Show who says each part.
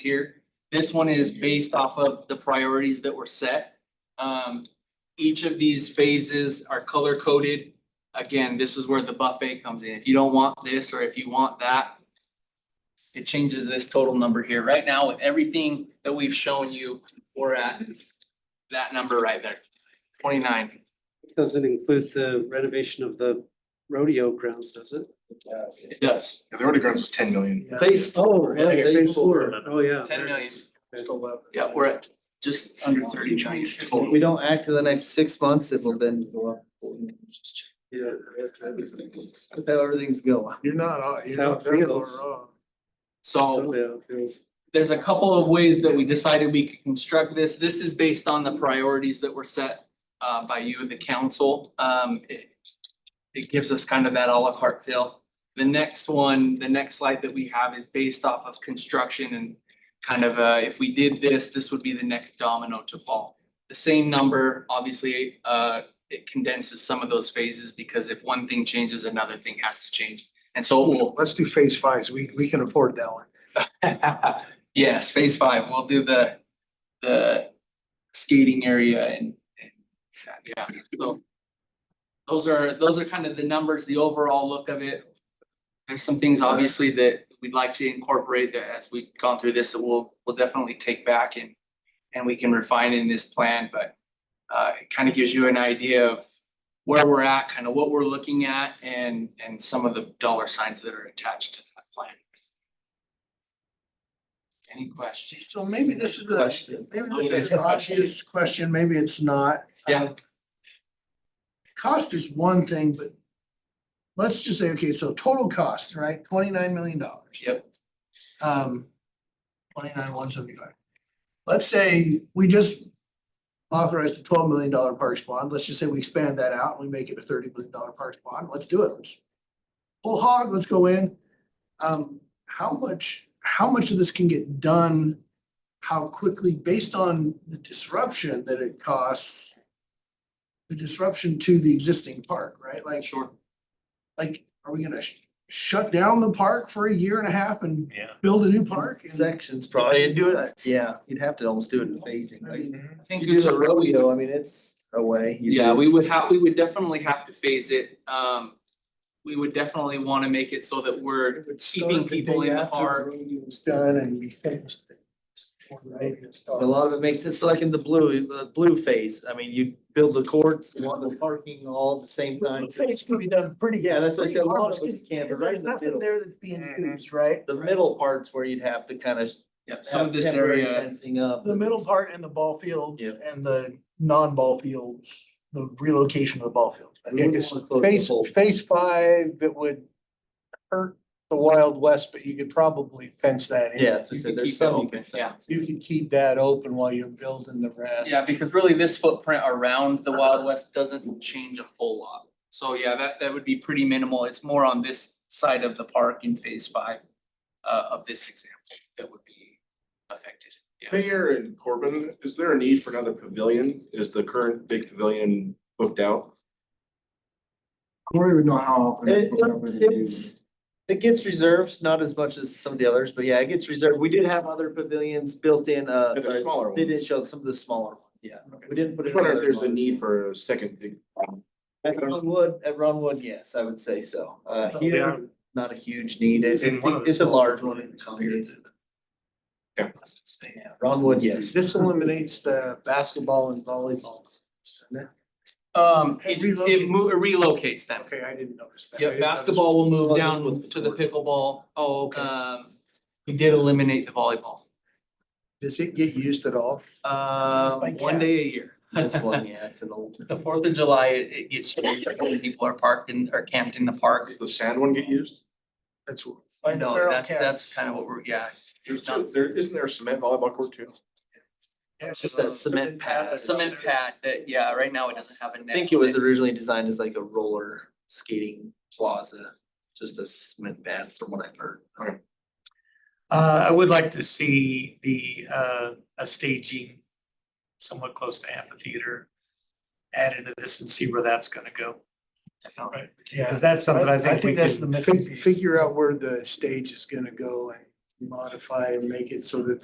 Speaker 1: here. This one is based off of the priorities that were set. Um, each of these phases are color coded. Again, this is where the buffet comes in. If you don't want this or if you want that, it changes this total number here. Right now, with everything that we've shown you, we're at that number right there, twenty-nine.
Speaker 2: Doesn't include the renovation of the rodeo grounds, does it?
Speaker 1: It does.
Speaker 3: Yeah, the order grounds was ten million.
Speaker 2: Phase four, yeah,
Speaker 4: Yeah,
Speaker 2: phase
Speaker 4: phase four's
Speaker 2: four.
Speaker 4: in it.
Speaker 2: Oh, yeah.
Speaker 1: Ten million.
Speaker 4: Just eleven.
Speaker 1: Yeah, we're at just under thirty trying to
Speaker 5: If
Speaker 1: total.
Speaker 5: we don't act for the next six months, it will then go up.
Speaker 4: Yeah.
Speaker 5: That's How everything's going.
Speaker 3: You're not, uh,
Speaker 2: That's
Speaker 3: you're
Speaker 2: how
Speaker 3: not,
Speaker 2: it
Speaker 3: that's all
Speaker 2: feels.
Speaker 3: wrong.
Speaker 1: So
Speaker 2: Yeah, yeah.
Speaker 1: there's a couple of ways that we decided we could construct this. This is based on the priorities that were set uh by you and the council. Um it it gives us kind of that à la carte feel. The next one, the next slide that we have is based off of construction and kind of uh if we did this, this would be the next domino to fall. The same number, obviously, uh it condenses some of those phases because if one thing changes, another thing has to change. And so it will
Speaker 3: Let's do phase five, so we, we can afford that one.
Speaker 1: Yes, phase five, we'll do the, the skating area and, and, that, yeah, so. Those are, those are kind of the numbers, the overall look of it. There's some things obviously that we'd like to incorporate that as we've gone through this, that we'll, we'll definitely take back and, and we can refine in this plan, but, uh, it kind of gives you an idea of where we're at, kind of what we're looking at and, and some of the dollar signs that are attached to that plan. Any questions?
Speaker 3: So maybe this is
Speaker 5: Question.
Speaker 3: maybe this is an obvious question, maybe it's not.
Speaker 1: Yeah.
Speaker 3: Um, Cost is one thing, but let's just say, okay, so total cost, right, twenty-nine million dollars.
Speaker 1: Yep.
Speaker 3: Um, twenty-nine, one seventy-five. Let's say we just authorized a twelve million dollar parks bond, let's just say we expand that out, and we make it a thirty million dollar parks bond, let's do it, let's pull hog, let's go in. Um, how much, how much of this can get done? How quickly, based on the disruption that it costs? The disruption to the existing park, right? Like,
Speaker 1: Sure.
Speaker 3: like, are we gonna sh- shut down the park for a year and a half and
Speaker 4: Yeah.
Speaker 3: build a new park? And-
Speaker 5: Sections probably, do it, yeah, you'd have to almost do it in phasing,
Speaker 3: I
Speaker 5: like,
Speaker 3: mean,
Speaker 1: I think
Speaker 5: you do
Speaker 1: it's
Speaker 5: the
Speaker 1: a
Speaker 5: rodeo, I mean, it's away. You
Speaker 1: Yeah,
Speaker 5: do-
Speaker 1: we would have, we would definitely have to phase it. Um, we would definitely want to make it so that we're
Speaker 3: it would
Speaker 1: Keeping
Speaker 3: start the
Speaker 1: people
Speaker 3: day
Speaker 1: in the
Speaker 3: after
Speaker 1: park.
Speaker 3: rodeo's Done and be finished. before the rodeo starts.
Speaker 5: A lot of it makes sense, like in the blue, the blue phase, I mean, you build the courts, you want the parking all at the same time.
Speaker 3: It's gonna be done pretty.
Speaker 5: Yeah, that's what I said, a lot of
Speaker 3: pretty
Speaker 5: it can't, but
Speaker 3: hard, 'cause
Speaker 5: right in the
Speaker 3: There's nothing
Speaker 5: middle,
Speaker 3: there that's being
Speaker 1: Mm-hmm.
Speaker 3: used, right?
Speaker 5: the middle parts where you'd have to kind of
Speaker 1: yeah, some
Speaker 5: have
Speaker 1: of this
Speaker 5: temporary
Speaker 1: area.
Speaker 5: fencing up.
Speaker 3: The middle part and the ball fields
Speaker 5: Yeah.
Speaker 3: and the non-ball fields, the relocation of the ball field.
Speaker 5: We wouldn't wanna close the whole-
Speaker 3: phase five, it would hurt the Wild West, but you could probably fence that
Speaker 5: Yeah, that's what I
Speaker 1: You can
Speaker 5: said, there's
Speaker 1: keep it
Speaker 5: some you
Speaker 1: open,
Speaker 5: can
Speaker 1: yeah.
Speaker 5: fence.
Speaker 3: You could keep that open while you're building the rest.
Speaker 1: Yeah, because really this footprint around the Wild West doesn't change a whole lot. So yeah, that, that would be pretty minimal. It's more on this side of the park in phase five uh, of this example that would be affected. Yeah.
Speaker 6: Mayor and Corbin, is there a need for another pavilion? Is the current big pavilion booked out?
Speaker 3: Corey would know how often. they
Speaker 5: It,
Speaker 3: put up with it.
Speaker 5: it's, it gets reserved, not as much as some of the others, but yeah, it gets reserved. We did have other pavilions built in, uh,
Speaker 6: It's a
Speaker 5: sorry,
Speaker 6: smaller
Speaker 5: they
Speaker 6: one.
Speaker 5: didn't show some of the smaller ones, yeah. We didn't put
Speaker 6: Just
Speaker 5: it.
Speaker 6: wondering if there's a need for a second big.
Speaker 5: At Ron Wood, at Ron Wood, yes, I would say so. Uh,
Speaker 4: Yeah.
Speaker 5: here, not a huge need. It-
Speaker 4: It's in
Speaker 5: it-
Speaker 4: one of the
Speaker 5: it's a
Speaker 4: smaller
Speaker 5: large one. in the community.
Speaker 6: Yeah.
Speaker 5: Yeah, Ron Wood, yes.
Speaker 3: This eliminates the basketball and volleyball.
Speaker 1: Um,
Speaker 3: It
Speaker 1: it,
Speaker 3: relocates.
Speaker 1: it mo- it relocates them.
Speaker 3: Okay, I didn't notice that. I
Speaker 1: Yeah,
Speaker 3: didn't notice-
Speaker 1: basketball will move
Speaker 5: Well,
Speaker 1: down
Speaker 5: that's
Speaker 1: to the pickleball.
Speaker 3: Oh, okay.
Speaker 1: Um, we did eliminate the volleyball.
Speaker 3: Does it get used at all?
Speaker 1: Uh,
Speaker 3: Like,
Speaker 1: one
Speaker 3: yeah.
Speaker 1: day a year.
Speaker 5: This one, yeah, it's an old.
Speaker 1: The Fourth of July, it it gets, changed, like, when people are parked in, are camped in the park.
Speaker 6: Does the sand one get used?
Speaker 3: That's what.
Speaker 1: No, that's, that's kind of what we're, yeah.
Speaker 6: There's two, there, isn't there a cement volleyball court too?
Speaker 5: It's just that cement pad.
Speaker 1: A cement pad that, yeah, right now it doesn't have a net.
Speaker 5: I think it was originally designed as like a roller skating plaza, just a cement pad from what I've heard.
Speaker 4: Uh, I would like to see the, uh, a staging somewhat close to amphitheater added to this and see where that's gonna go.
Speaker 1: Definitely.
Speaker 4: Cause
Speaker 3: Yeah,
Speaker 4: that's something
Speaker 3: I,
Speaker 4: I
Speaker 3: I
Speaker 4: think we
Speaker 3: think that's the
Speaker 4: can
Speaker 3: missing
Speaker 4: fig-
Speaker 3: piece.
Speaker 4: figure
Speaker 3: Figure out where the stage is gonna go and modify and make it so that